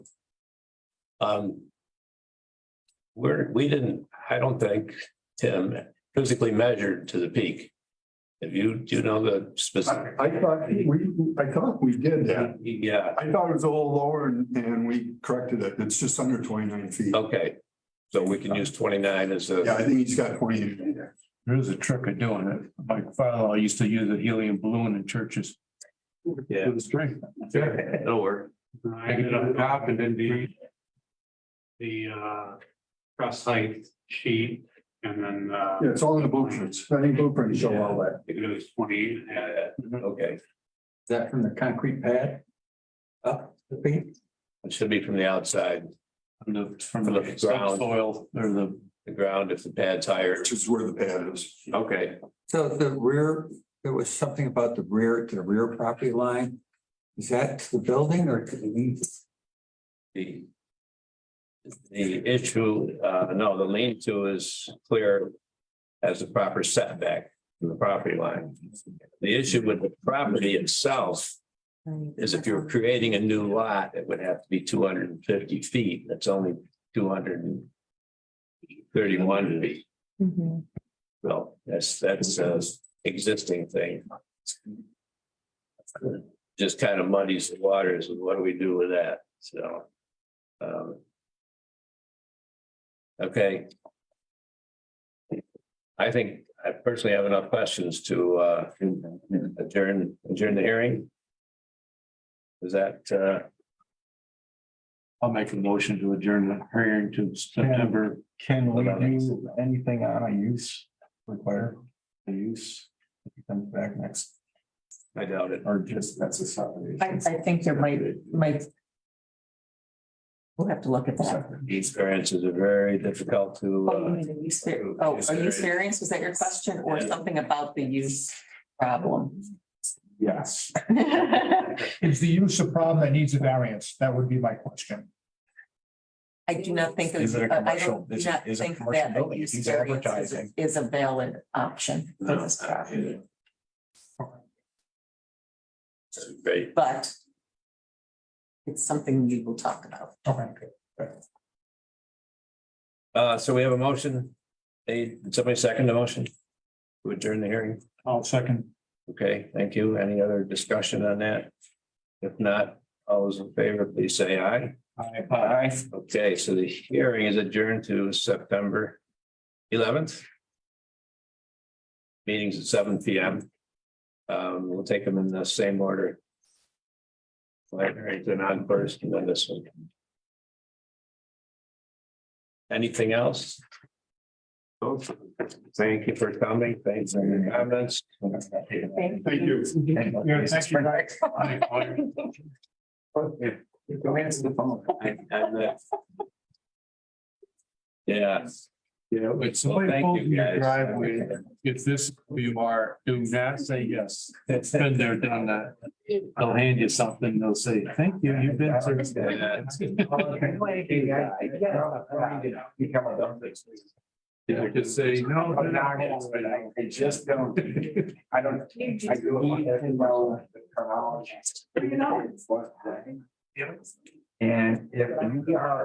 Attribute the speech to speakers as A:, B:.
A: Um. We're, we didn't, I don't think, Tim, physically measured to the peak. Have you, do you know the specific?
B: I I thought we, I thought we did that.
A: Yeah,
B: I thought it was a little lower and, and we corrected it. It's just under twenty-nine feet.
A: okay. So we can use twenty-nine as
B: Yeah,
A: a,
B: I think he's got twenty.
C: There's a trick of doing it. My father used to use a helium balloon in churches.
A: Yeah.
C: With a string.
A: it'll work.
D: I ended up dropping in the. The uh, cross site sheet and then uh,
B: Yeah, it's all in the blueprints. I think blueprints show all that.
D: I think it was twenty, uh,
A: Okay,
E: that from the concrete pad? Up the peak?
A: it should be from the outside,
C: From the, from
A: From the
C: the
A: ground.
C: soil or the,
A: the ground, if the pad's higher.
B: Which is where the pad is.
A: Okay,
E: So the rear, there was something about the rear, to the rear property line. Is that to the building or to the east?
A: the. The issue, uh, no, the lean-to is clear as a proper setback from the property line. The issue with the property itself is if you're creating a new lot, it would have to be two hundred and fifty feet. That's only two hundred and thirty-one feet.
F: Mhm.
A: Well, that's, that's a existing thing. Just kind of muddies the waters. and What do we do with that? So. um, Okay. I think I personally have enough questions to, uh, adjourn, adjourn the hearing. Is that, uh,
C: I'll make a motion to adjourn the hearing to September.
G: Can we
A: Hold on.
G: do anything on a use require, the use, if it comes back next,
A: I doubt it.
G: or just that's a subdivision?
F: I, I think there might, might. We'll have to look at that.
A: These variances are very difficult to,
F: Oh, you
A: uh,
F: mean the use var- oh, a use variance, was that your question, or
A: Yeah.
F: something about the use problem?
G: Yes.
F: I
H: Is the use a problem that needs a variance? That would be my question.
F: do not think.
G: Is it a
F: I
G: commercial-
F: don't- do
G: is it-
F: Not
G: is it a
F: think
G: commercial
F: that a
G: building?
F: use
G: He's
F: variance is-
G: advertising.
F: is a valid option for this property,
A: great.
F: but. It's something we will talk about.
H: Okay.
A: Uh, so we have a motion. Hey, did somebody second the motion? To adjourn the hearing?
C: I'll second.
A: Okay, thank you. Any other discussion on that? If not, all those in favor, please say aye.
C: Aye.
A: Okay, so the hearing is adjourned to September eleventh. Meetings at seven P M. Um, we'll take them in the same order. Like, right, then on first and then this one. Anything else? Folks, Thank you for coming. Thanks for your comments.
F: Thank
B: Thank you.
C: Yeah, thank you.
D: uh,
C: Aye.
G: Go answer the phone.
A: And- and, uh, Yeah,
C: Yeah, wait,
A: thank
C: somebody
A: you,
C: pulled in your
A: guys.
C: driveway. If this is who you are, do not say yes. It's been there, done that. They'll hand you something. They'll say, thank you. You've been. served."
A: Yeah.
G: Become a dumb thing.
C: Yeah, just say, no.
G: I'm not gonna say that. I just don't, I don't, I do it like that in my own chronology. And if you are